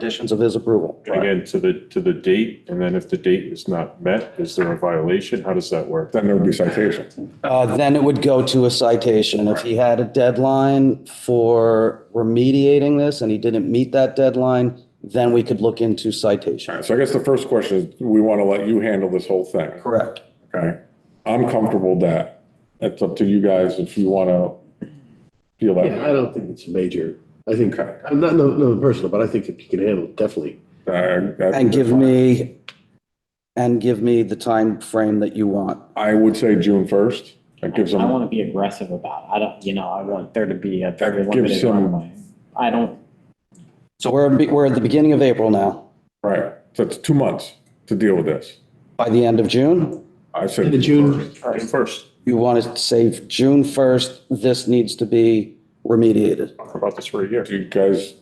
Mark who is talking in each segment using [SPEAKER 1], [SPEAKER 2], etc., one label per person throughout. [SPEAKER 1] conditions of his approval.
[SPEAKER 2] Again, to the, to the date, and then if the date is not met, is there a violation? How does that work?
[SPEAKER 3] Then there would be citation.
[SPEAKER 1] Uh, Then it would go to a citation. If he had a deadline for remediating this and he didn't meet that deadline, then we could look into citation.
[SPEAKER 3] So I guess the first question is, we want to let you handle this whole thing.
[SPEAKER 1] Correct.
[SPEAKER 3] Okay. I'm comfortable that. It's up to you guys if you want to feel that.
[SPEAKER 4] Yeah, I
[SPEAKER 3] way.
[SPEAKER 4] don't think it's a major, I think,
[SPEAKER 3] Okay.
[SPEAKER 4] I'm not, no, no, personal, but I think if you can handle, it, definitely.
[SPEAKER 3] I- I-
[SPEAKER 1] And give me, and give me the time frame that you want.
[SPEAKER 3] I would say June 1st. That gives
[SPEAKER 5] I
[SPEAKER 3] them,
[SPEAKER 5] want to be aggressive about it. I don't, you know, I want there to be a very
[SPEAKER 3] That gives
[SPEAKER 5] limited
[SPEAKER 3] some-
[SPEAKER 5] runway. I don't,
[SPEAKER 1] So we're, we're at the beginning of April now.
[SPEAKER 3] right. So it's two months to deal with this.
[SPEAKER 1] By the end of June,
[SPEAKER 3] I said.
[SPEAKER 4] In the June,
[SPEAKER 2] First,
[SPEAKER 1] you want to say June 1st, this needs to be remediated.
[SPEAKER 2] talk about this for a year.
[SPEAKER 3] Do you guys,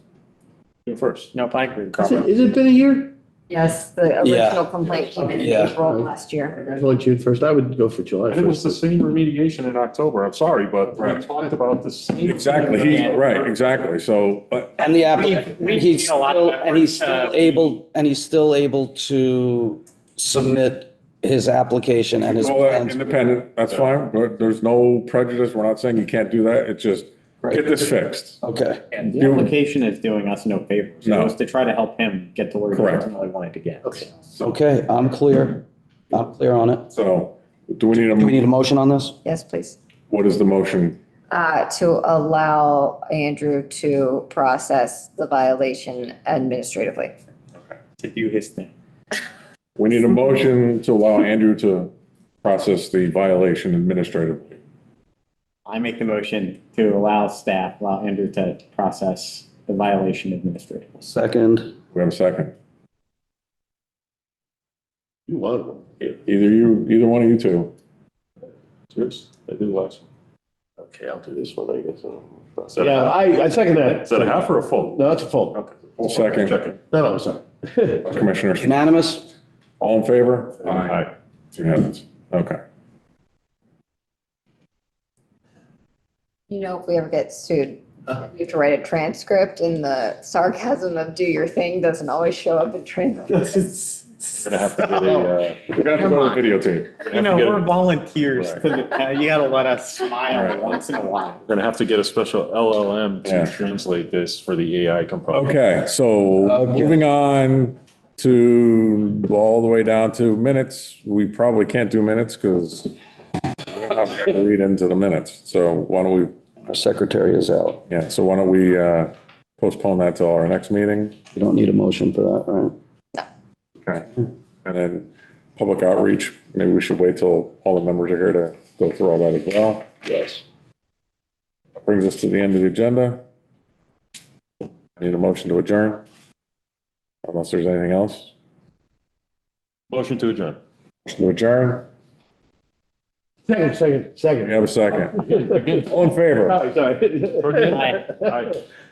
[SPEAKER 2] June first.
[SPEAKER 5] no, I agree.
[SPEAKER 4] has it, has it been a year?
[SPEAKER 6] Yes, the
[SPEAKER 1] Yeah.
[SPEAKER 6] original complaint came in
[SPEAKER 1] Yeah.
[SPEAKER 6] April last year.
[SPEAKER 4] It's only June first, I would go for July
[SPEAKER 2] And it was
[SPEAKER 4] first.
[SPEAKER 2] the same remediation in October. I'm sorry, but we
[SPEAKER 3] Right.
[SPEAKER 2] talked about the same.
[SPEAKER 3] exactly, he, right, exactly. So, but
[SPEAKER 1] And the
[SPEAKER 5] We've- we've
[SPEAKER 1] applicant, he's
[SPEAKER 5] seen a lot of
[SPEAKER 1] still, and he's
[SPEAKER 5] effort,
[SPEAKER 1] still
[SPEAKER 5] uh,
[SPEAKER 1] able, and he's still able to submit his application and his
[SPEAKER 3] all that
[SPEAKER 1] plans.
[SPEAKER 3] independent, that's fine. But there's no prejudice. We're not saying you can't do that. It's just get
[SPEAKER 1] Right.
[SPEAKER 3] this fixed.
[SPEAKER 1] Okay,
[SPEAKER 5] And the application is doing us no favors. It
[SPEAKER 3] No.
[SPEAKER 5] was to try to help him get to where he
[SPEAKER 3] Correct.
[SPEAKER 5] ultimately wanted to get.
[SPEAKER 4] Okay.
[SPEAKER 1] okay, I'm clear. I'm clear on it.
[SPEAKER 3] So do we need
[SPEAKER 1] Do we
[SPEAKER 3] a,
[SPEAKER 1] need a motion on this?
[SPEAKER 6] Yes, please.
[SPEAKER 3] what is the motion?
[SPEAKER 6] Uh, to allow Andrew to process the violation administratively.
[SPEAKER 5] To do his thing.
[SPEAKER 3] We need a motion to allow Andrew to process the violation administratively.
[SPEAKER 5] I make the motion to allow staff, allow Andrew to process the violation administratively.
[SPEAKER 1] Second,
[SPEAKER 3] We have a second.
[SPEAKER 4] You want one.
[SPEAKER 3] Either you, either one of you two.
[SPEAKER 2] I do last.
[SPEAKER 4] Okay, I'll do this one, I guess. Yeah, I, I second that.
[SPEAKER 2] um, Is that a half or a full?
[SPEAKER 4] No, it's a full.
[SPEAKER 2] Okay.
[SPEAKER 3] Full second.
[SPEAKER 2] Second.
[SPEAKER 4] No, no, I'm sorry.
[SPEAKER 3] Commissioners,
[SPEAKER 1] unanimous?
[SPEAKER 3] all in favor?
[SPEAKER 2] Aye.
[SPEAKER 3] It's unanimous. Okay.
[SPEAKER 6] You know, if we ever get sued,
[SPEAKER 1] Uh.
[SPEAKER 6] you have to write a transcript and the sarcasm of do your thing doesn't always show up in transcripts.
[SPEAKER 2] We're gonna have to get a, uh,
[SPEAKER 3] We're gonna have to go to the videotape.
[SPEAKER 2] we're
[SPEAKER 5] You
[SPEAKER 2] gonna
[SPEAKER 5] know,
[SPEAKER 2] have to get a-
[SPEAKER 5] we're volunteers.
[SPEAKER 2] Right.
[SPEAKER 5] to the- You gotta let us smile once in a while.
[SPEAKER 2] we're gonna have to get a special LLM
[SPEAKER 3] Yeah.
[SPEAKER 2] to translate this for the AI component.
[SPEAKER 3] Okay, so moving on to all the way down to minutes. We probably can't do minutes because we're not going to read into the minutes. So why don't we
[SPEAKER 1] Our secretary is out.
[SPEAKER 3] Yeah, so why don't we uh, postpone that till our next meeting?
[SPEAKER 1] You don't need a motion for that, right?
[SPEAKER 3] Okay. And then public outreach, maybe we should wait till all the members are here to go through all that as well.
[SPEAKER 1] Yes.
[SPEAKER 3] Brings us to the end of the agenda. I Need a motion to adjourn? Unless there's anything else?
[SPEAKER 2] Motion to adjourn.
[SPEAKER 3] Motion to adjourn?
[SPEAKER 4] Second, second,
[SPEAKER 3] We
[SPEAKER 4] second.
[SPEAKER 3] have a second. All in favor?
[SPEAKER 4] Sorry, sorry.
[SPEAKER 5] Aye.
[SPEAKER 2] Aye.